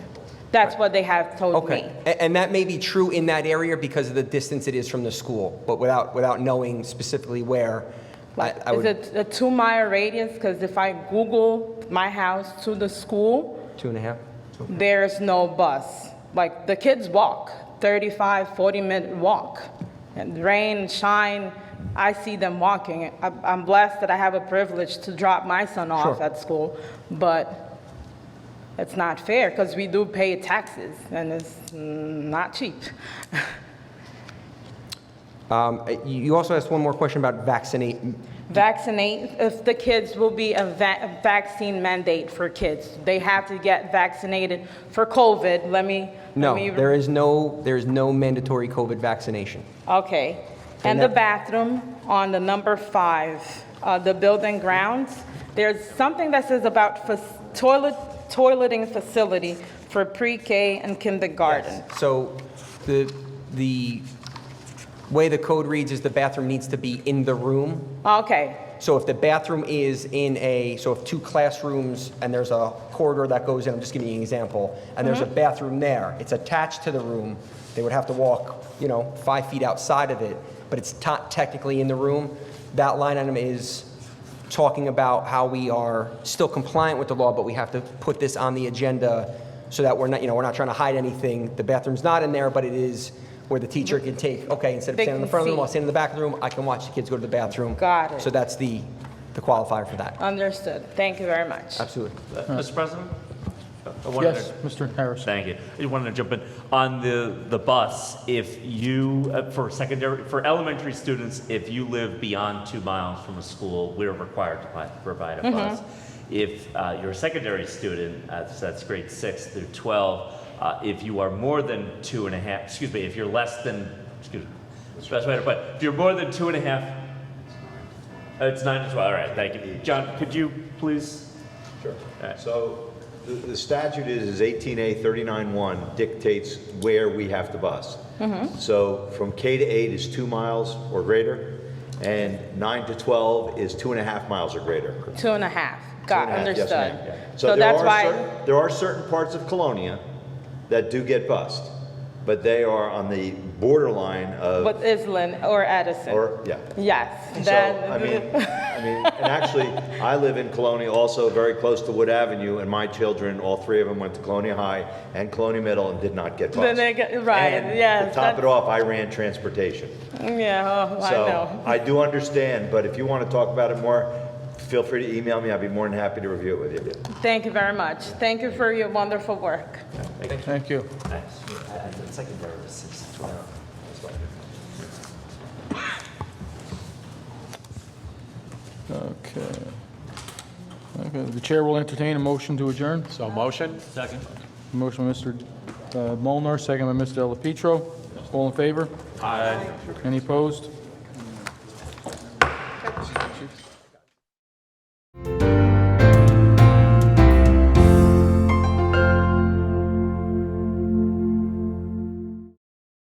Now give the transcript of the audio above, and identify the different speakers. Speaker 1: That's what they have told me.
Speaker 2: Okay, A- and that may be true in that area because of the distance it is from the school, but without, without knowing specifically where, I
Speaker 1: Like,
Speaker 2: I
Speaker 1: is
Speaker 2: would,
Speaker 1: it a two-mile radius? Because if I Google my house to the school,
Speaker 2: two and a half?
Speaker 1: there's no bus. Like, the kids walk, 35, 40-minute walk. And rain, shine, I see them walking. I- I'm blessed that I have a privilege to drop my son off
Speaker 2: Sure.
Speaker 1: at school, but it's not fair, because we do pay taxes, and it's mm, not cheap.
Speaker 2: Um, uh, You you also asked one more question about vaccinate,
Speaker 1: Vaccinate, if the kids will be a va- a vaccine mandate for kids. They have to get vaccinated for COVID, let me. let
Speaker 2: no,
Speaker 1: me-
Speaker 2: there is no, there is no mandatory COVID vaccination.
Speaker 1: Okay.
Speaker 2: And
Speaker 1: And the
Speaker 2: that-
Speaker 1: bathroom on the number five, uh, the building grounds, there's something that says about fac- toilet, toileting facility for pre-K and kindergarten.
Speaker 2: So the, the way the code reads is the bathroom needs to be in the room,
Speaker 1: Okay,
Speaker 2: So if the bathroom is in a, so if two classrooms and there's a corridor that goes in, I'm just giving you an example, and there's a
Speaker 1: Mm-hmm.
Speaker 2: bathroom there, it's attached to the room, they would have to walk, you know, five feet outside of it, but it's not technically in the room. That line item is talking about how we are still compliant with the law, but we have to put this on the agenda so that we're not, you know, we're not trying to hide anything. The bathroom's not in there, but it is where the teacher can take, okay, instead of
Speaker 1: They
Speaker 2: standing in the
Speaker 1: can
Speaker 2: front of the room,
Speaker 1: see.
Speaker 2: I'll stand in the back of the room, I can watch the kids go to the bathroom.
Speaker 1: Got it.
Speaker 2: So that's the, the qualifier for that.
Speaker 1: understood. Thank you very much.
Speaker 2: Absolutely.
Speaker 3: Uh, Mr. President? I wanted
Speaker 4: Yes,
Speaker 3: to-
Speaker 4: Mr. Harris.
Speaker 3: Thank you. I wanted to jump in. On the, the bus, if you, uh, for secondary, for elementary students, if you live beyond two miles from a school, we're required to pi- provide a bus. If uh, you're a secondary student, uh, so that's grade six through 12, uh, if you are more than two and a half, excuse me, if you're less than, excuse me, specify, but if you're more than two and a half uh, It's nine to 12, all right, thank you. John, could you please?
Speaker 5: Sure.
Speaker 3: Alright.
Speaker 5: So the- the statute is, is 18A 39-1 dictates where we have to bus.
Speaker 1: Mm-hmm.
Speaker 5: So from K to 8 is two miles or greater, and 9 to 12 is two and a half miles or greater.
Speaker 1: Two and a half. Got,
Speaker 5: Two and a half, yes,
Speaker 1: understood.
Speaker 5: ma'am.
Speaker 1: So
Speaker 5: there
Speaker 1: that's
Speaker 5: are
Speaker 1: why,
Speaker 5: cer- There are certain parts of Colonia that do get bused, but they are on the borderline of,
Speaker 1: but Island or Edison?
Speaker 5: or, yeah.
Speaker 1: Yes.
Speaker 5: So,
Speaker 1: that-
Speaker 5: I mean, I mean, and actually, I live in Colonia, also very close to Wood Avenue, and my children, all three of them went to Colonia High and Colonia Middle and did not get bused.
Speaker 1: Then they get- right,
Speaker 5: And
Speaker 1: yes,
Speaker 5: To top
Speaker 1: that's-
Speaker 5: it off, I ran transportation.
Speaker 1: Yeah, oh, I
Speaker 5: So
Speaker 1: know.
Speaker 5: I do understand, but if you want to talk about it more, feel free to email me. I'd be more than happy to review it with you.
Speaker 1: Thank you very much. Thank you for your wonderful work.
Speaker 4: Thank you. Okay. Okay, the chair will entertain a motion to adjourn.
Speaker 6: So motion? Second.
Speaker 4: Motion by Mr. uh, Molnar, second by Mr. Delapetro. All in favor? Aye. Any opposed?